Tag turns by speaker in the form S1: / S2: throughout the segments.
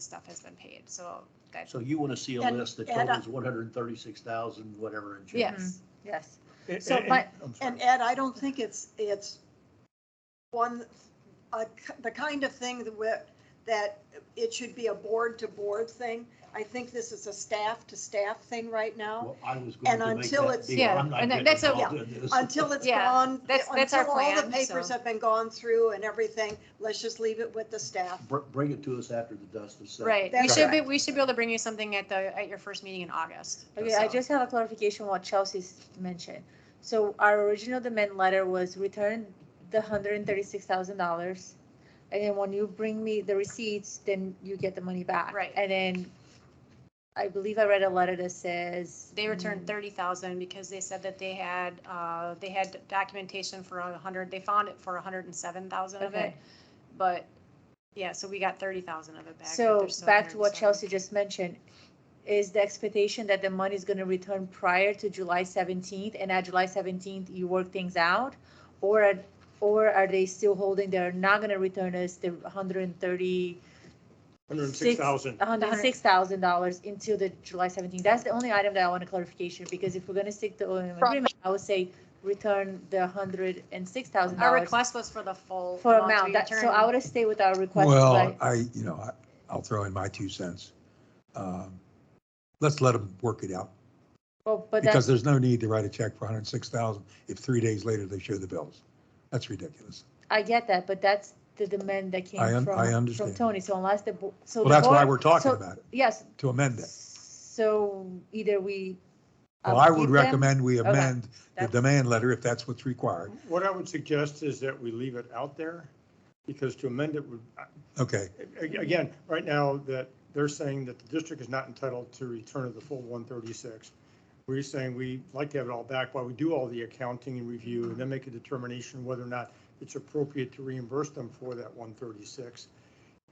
S1: stuff has been paid, so that,
S2: So you want to see a
S3: And-
S2: list that
S3: and, uh,
S2: totals one hundred and thirty-six thousand, whatever in change.
S1: yes.
S3: Yes.
S2: And-
S3: So,
S2: and-
S3: but-
S2: I'm sorry.
S3: And Ed, I don't think it's, it's one, uh, the kind of thing that, we're- that it should be a board-to-board thing. I think this is a staff-to-staff thing right now.
S2: Well, I was going
S3: and
S2: to make
S3: until
S2: that
S3: it's-
S2: deal.
S1: Yeah,
S2: I'm not
S1: and
S2: getting
S1: that's a-
S2: involved in this.
S3: Until it's
S1: Yeah,
S3: gone,
S1: that's- that's our
S3: until all the
S1: plan,
S3: papers
S1: so.
S3: have been gone through and everything, let's just leave it with the staff.
S2: Br- Bring it to us after the dust is settled.
S1: Right, we
S3: That's
S1: should be,
S3: correct.
S1: we should be able to bring you something at the, at your first meeting in August.
S4: Okay, I
S1: so.
S4: just have a clarification what Chelsea's mentioned. So our original demand letter was return the hundred and thirty-six thousand dollars. And then when you bring me the receipts, then you get the money back.
S1: Right.
S4: And then I believe I read a letter that says.
S1: They
S4: Mm.
S1: returned thirty thousand because they said that they had, uh, they had documentation for a hundred, they found it for a hundred and seven thousand of it.
S4: Okay.
S1: But, yeah, so we got thirty thousand of it back. but
S4: So
S1: there's still
S4: back to what
S1: 107.
S4: Chelsea just mentioned, is the expectation that the money is gonna return prior to July seventeenth, and at July seventeenth, you work things out? Or, are- or are they still holding, they're not gonna return us the hundred and thirty,
S5: Hundred and six thousand.
S4: hundred and six thousand dollars until the July seventeenth? That's the only item that I want a clarification, because if we're gonna stick to O&M
S3: Right.
S4: agreement, I would say return the hundred and six thousand
S1: Our
S4: dollars
S1: request was for the full.
S4: for
S1: we
S4: amount, that, so
S1: returned.
S4: I would stay with our request.
S6: Well,
S4: like-
S6: I, you know, I, I'll throw in my two cents. Um, Let's let them work it out,
S4: Well, but that's.
S6: because there's no need to write a check for hundred and six thousand if three days later they show the bills. That's ridiculous.
S4: I get that, but that's the demand that came
S6: I un-
S4: from,
S6: I
S4: from
S6: understand.
S4: Tony. So unless the, bo- so.
S6: Well,
S4: the
S6: that's why
S4: board-
S6: we're talking
S4: so-
S6: about it,
S4: Yes,
S6: to amend it.
S4: so either we.
S6: Well, I would
S4: upkeep them-
S6: recommend we
S4: Okay.
S6: amend the
S4: That's-
S6: demand letter if that's what's required.
S5: What I would suggest is that we leave it out there, because to amend it would,
S6: Okay,
S5: a- again, right now, that they're saying that the district is not entitled to return of the full one thirty-six. We're saying we'd like to have it all back while we do all the accounting and review, and then make a determination whether or not it's appropriate to reimburse them for that one thirty-six.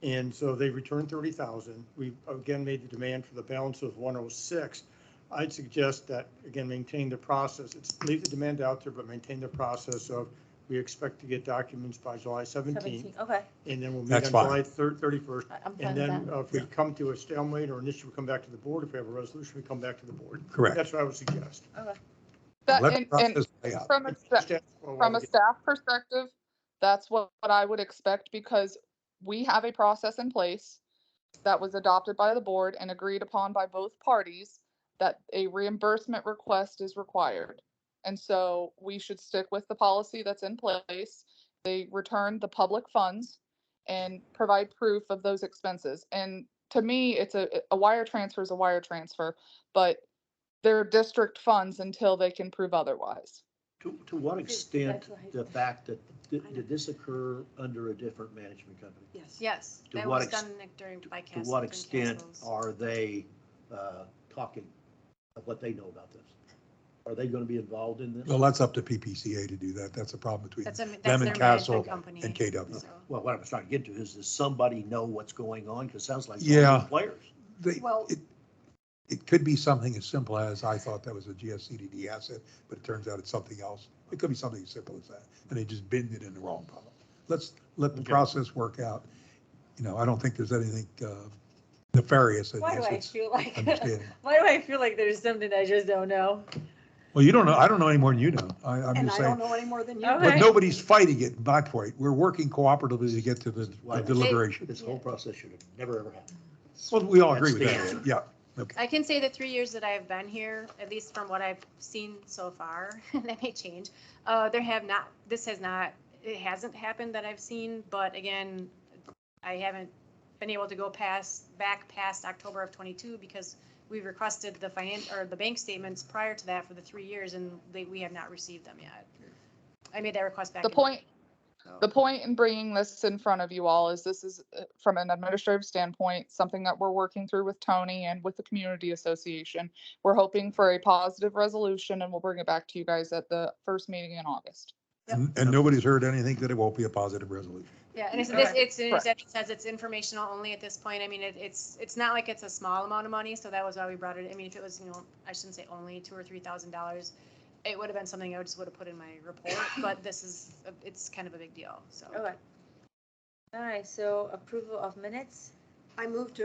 S5: And so they returned thirty thousand. We again made the demand for the balance of one oh six. I'd suggest that, again, maintain the process. It's leave the demand out there, but maintain the process of, we expect to get documents by July seventeenth,
S4: Seventeen, okay,
S5: and then we'll meet
S6: That's
S5: on
S6: fine.
S5: July thirty-first.
S4: I- I'm fine
S5: And
S4: with
S5: then
S4: that.
S5: uh, if we
S6: Yeah.
S5: come to a stalemate or an issue, we come back to the board. If we have a resolution, we come back to the board.
S6: correct.
S5: That's what I would suggest.
S6: Let
S7: That,
S6: the
S7: and, and
S6: process play out.
S7: from a, sta-
S5: Staff, well,
S7: from
S5: we
S7: a
S5: get-
S7: staff perspective, that's what, what I would expect because we have a process in place that was adopted by the board and agreed upon by both parties that a reimbursement request is required. And so we should stick with the policy that's in place. They return the public funds and provide proof of those expenses. And to me, it's a, a wire transfer is a wire transfer, but they're district funds until they can prove otherwise.
S2: To, to what extent
S4: That's right.
S2: the fact that, did did this occur under a different management company?
S3: Yes.
S1: Yes,
S2: To
S1: that
S2: what
S1: was
S2: ex-
S1: done like, during, by
S2: To
S1: Castle.
S2: what
S1: during
S2: extent
S1: Castle's.
S2: are they uh, talking of what they know about this? Are they going to be involved in this?
S6: Well, that's up to PPCA to do that. That's a problem between
S1: That's a- that's
S6: them
S1: their
S6: and Castle
S1: management company,
S6: and KW.
S1: so.
S2: Well, what I was trying to get to is, does somebody know what's going on? Because it sounds like. all
S6: Yeah.
S2: the Players.
S6: They,
S3: Well-
S6: it, it could be something as simple as, I thought that was a GSCDD asset, but it turns out it's something else. It could be something as simple as that, and they just binned it in the wrong column. Let's let the
S5: Okay.
S6: process work out. You know, I don't think there's anything uh, nefarious in
S4: Why do I
S6: this.
S4: feel
S6: It's
S4: like,
S6: understanding.
S4: why do I feel like there's something I just don't know?
S6: Well, you don't know, I don't know any more than you know. I, I'm
S3: And
S6: just
S3: I don't
S6: saying,
S3: know any more than you.
S4: Okay.
S6: but nobody's fighting it, my point. We're working cooperatively to get to the
S2: Why-
S6: the deliberation.
S2: This whole process should have never, ever happened.
S6: Well, we all agree with
S2: That's the
S6: that, yeah. Okay.
S1: I can say the three years that I've been here, at least from what I've seen so far, and that may change, uh, there have not, this has not, it hasn't happened that I've seen, but again, I haven't been able to go past, back past October of twenty-two because we requested the finance, or the bank statements prior to that for the three years and they, we have not received them yet. I made that request back.
S7: The
S1: in-
S7: point,
S1: so.
S7: the point in bringing this in front of you all is this is, uh, from an administrative standpoint, something that we're working through with Tony and with the community association. We're hoping for a positive resolution and we'll bring it back to you guys at the first meeting in August.
S6: And and nobody's heard anything that it won't be a positive resolution.
S1: Yeah, and it's, this,
S7: Correct.
S1: it's, it
S7: Correct.
S1: says- it says it's informational only at this point. I mean, it, it's, it's not like it's a small amount of money, so that was why we brought it. I mean, if it was, you know, I shouldn't say only two or three thousand dollars, it would have been something I just would have put in my report, but this is, it's kind
S4: Oh,
S1: of a big deal, so.
S4: Okay. All right, so approval of minutes?
S3: I moved to